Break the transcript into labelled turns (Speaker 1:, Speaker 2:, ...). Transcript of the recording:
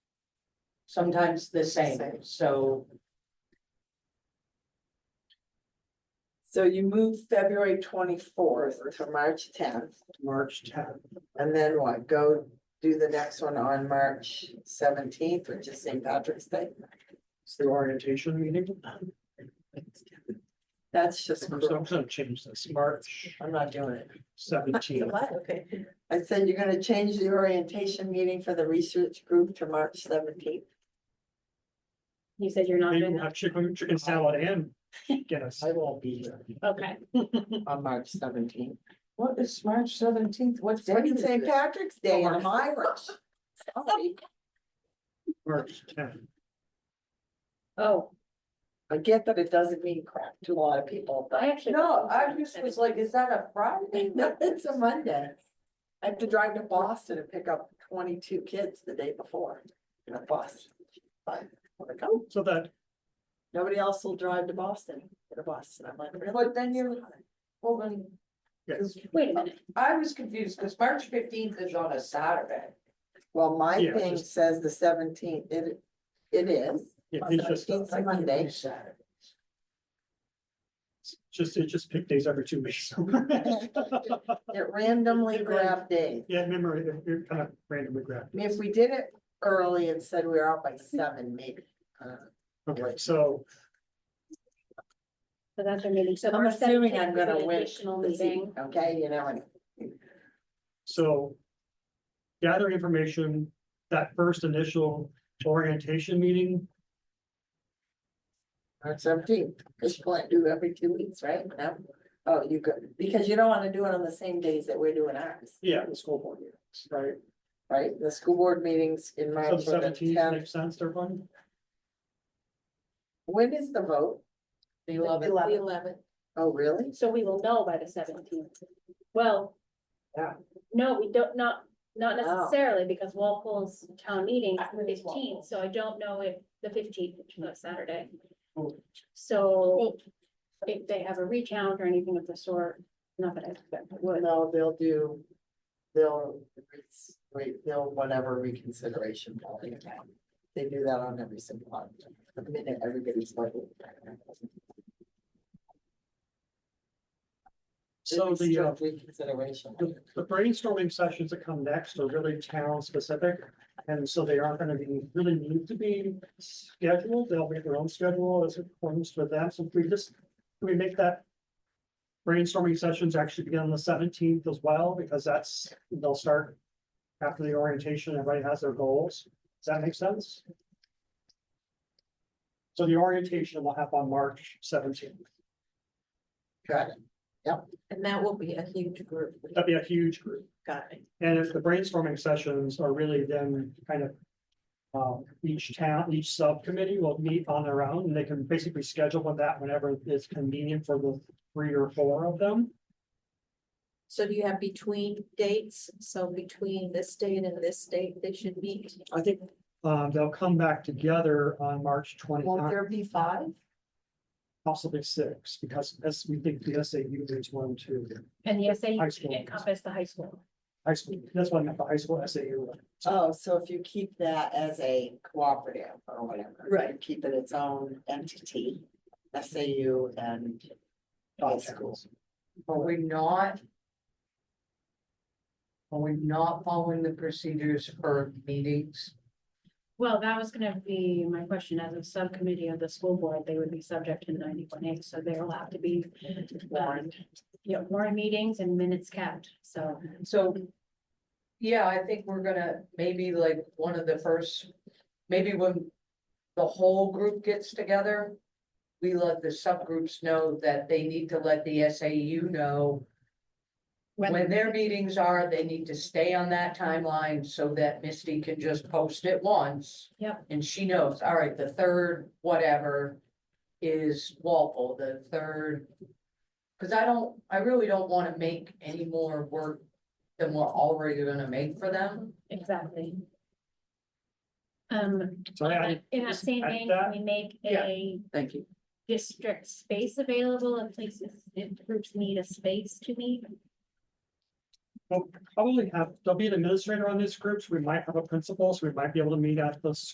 Speaker 1: sometimes the same,
Speaker 2: Same.
Speaker 1: so
Speaker 2: So you move February twenty-fourth to March tenth,
Speaker 1: March tenth.
Speaker 2: and then what, go do the next one on March seventeenth, which is St. Patrick's Day?
Speaker 3: It's the orientation meeting.
Speaker 2: That's just,
Speaker 3: I'm
Speaker 2: cruel.
Speaker 3: gonna change this, March
Speaker 2: I'm not doing it.
Speaker 3: seventeenth.
Speaker 2: Okay. I said you're gonna change the orientation meeting for the research group to March seventeenth.
Speaker 4: You said you're not doing
Speaker 3: Maybe
Speaker 4: that,
Speaker 3: have chicken, chicken salad and Guinness.
Speaker 2: I won't be here
Speaker 4: okay.
Speaker 2: on March seventeenth.
Speaker 1: What is March seventeenth? What
Speaker 2: It's
Speaker 1: day
Speaker 2: fucking
Speaker 1: is
Speaker 2: St.
Speaker 1: it?
Speaker 2: Patrick's Day and
Speaker 1: Oh,
Speaker 2: I'm Irish. Sorry.
Speaker 3: March tenth.
Speaker 4: Oh,
Speaker 2: I get that it doesn't mean crap to a lot of people, but.
Speaker 4: I actually.
Speaker 1: No, I just was like, is that a Friday?
Speaker 2: No, it's a Monday. I have to drive to Boston and pick up twenty-two kids the day before in a bus. But I'm like, oh,
Speaker 3: So that,
Speaker 2: nobody else will drive to Boston in a bus. And I'm like, really?
Speaker 1: But then you- Well, then,
Speaker 3: yes,
Speaker 4: Wait a minute,
Speaker 1: I was confused because March fifteenth is on a Saturday.
Speaker 2: Well, my
Speaker 3: Yeah,
Speaker 2: thing
Speaker 3: just-
Speaker 2: says the seventeenth, it, it is.
Speaker 3: yeah, it's just,
Speaker 2: Seventeenth a Monday.
Speaker 1: Saturday.
Speaker 3: just, it just pick days every two weeks.
Speaker 2: It randomly grabbed days.
Speaker 3: Yeah, memory, you're kind of randomly grabbed.
Speaker 2: I mean, if we did it early and said we were out by seven, maybe. Uh,
Speaker 3: Okay, so
Speaker 4: so that's our meeting, so.
Speaker 2: I'm
Speaker 4: March
Speaker 2: assuming
Speaker 4: 17th
Speaker 2: I'm
Speaker 4: is
Speaker 2: gonna
Speaker 4: an
Speaker 2: win.
Speaker 4: Additional
Speaker 2: this evening,
Speaker 4: meeting,
Speaker 2: Okay, you know, and
Speaker 3: So gather information, that first initial orientation meeting,
Speaker 2: March seventeenth, because you can't do every two weeks, right? No? Oh, you could, because you don't wanna do it on the same days that we're doing ours,
Speaker 3: yeah, the school board meetings, right?
Speaker 2: right? The school board meetings in
Speaker 3: So
Speaker 2: March
Speaker 3: the
Speaker 2: for the
Speaker 3: seventeenth
Speaker 2: tenth.
Speaker 3: makes sense, to everyone?
Speaker 2: When is the vote? The eleventh.
Speaker 4: the eleventh,
Speaker 2: Oh, really?
Speaker 4: so we will know by the seventeenth. Well.
Speaker 2: Yeah.
Speaker 4: No, we don't, not, not
Speaker 2: Oh.
Speaker 4: necessarily, because Walpole's town meeting
Speaker 1: I think it's Walpole.
Speaker 4: fifteenth, so I don't know if the fifteenth, which is a Saturday.
Speaker 3: Oh.
Speaker 4: So if they have a recount or anything of the sort, not that I expect it would.
Speaker 2: No, they'll do, they'll, wait, they'll whatever reconsideration. policy. They do that on every single one, the minute everybody's voting.
Speaker 3: So the, uh,
Speaker 2: Reconsideration.
Speaker 3: the the brainstorming sessions that come next are really town specific. And so they aren't gonna be, really need to be scheduled, they'll make their own schedule as it forms for them, so if we just, can we make that. Brainstorming sessions actually begin on the seventeenth as well, because that's, they'll start. After the orientation, everybody has their goals, does that make sense? So the orientation will happen on March seventeenth,
Speaker 2: Got it.
Speaker 5: And that will be a huge group.
Speaker 3: that'd be a huge group.
Speaker 5: Got it.
Speaker 3: And if the brainstorming sessions are really then kind of. Um, each town, each subcommittee will meet on their own and they can basically schedule with that whenever it's convenient for the three or four of them.
Speaker 5: So do you have between dates? So between this date and this date, they should meet?
Speaker 3: I think, um, they'll come back together on March twenty, uh,
Speaker 2: Won't there be five?
Speaker 3: possibly six, because as we think the SAU is one, two.
Speaker 4: And the essay
Speaker 3: High school.
Speaker 4: encompass the high school.
Speaker 3: High school, that's why I meant the high school SAU.
Speaker 2: Oh, so if you keep that as a cooperative or whatever.
Speaker 5: Right.
Speaker 2: Keep it its own entity, SAU and high schools.
Speaker 1: Are we not? Are we not following the procedures for meetings?
Speaker 4: Well, that was gonna be my question, as a subcommittee of the school board, they would be subject to ninety-one A, so they're allowed to be. um, You know, more meetings and minutes kept, so.
Speaker 1: So, yeah, I think we're gonna, maybe like one of the first, maybe when the whole group gets together, we let the subgroups know that they need to let the SAU know when their meetings are, they need to stay on that timeline so that Misty can just post it once.
Speaker 4: Yep.
Speaker 1: And she knows, all right, the third, whatever, is Walpole, the third. Cause I don't, I really don't wanna make any more work than we're already gonna make for them.
Speaker 4: Exactly. Um,
Speaker 3: So I,
Speaker 4: in that same
Speaker 3: add
Speaker 4: vein,
Speaker 3: that?
Speaker 4: we make a
Speaker 1: Thank you.
Speaker 4: district space available in places, if groups need a space to meet.
Speaker 3: will probably have, there'll be an administrator on these groups, we might have a principal, so we might be able to meet at the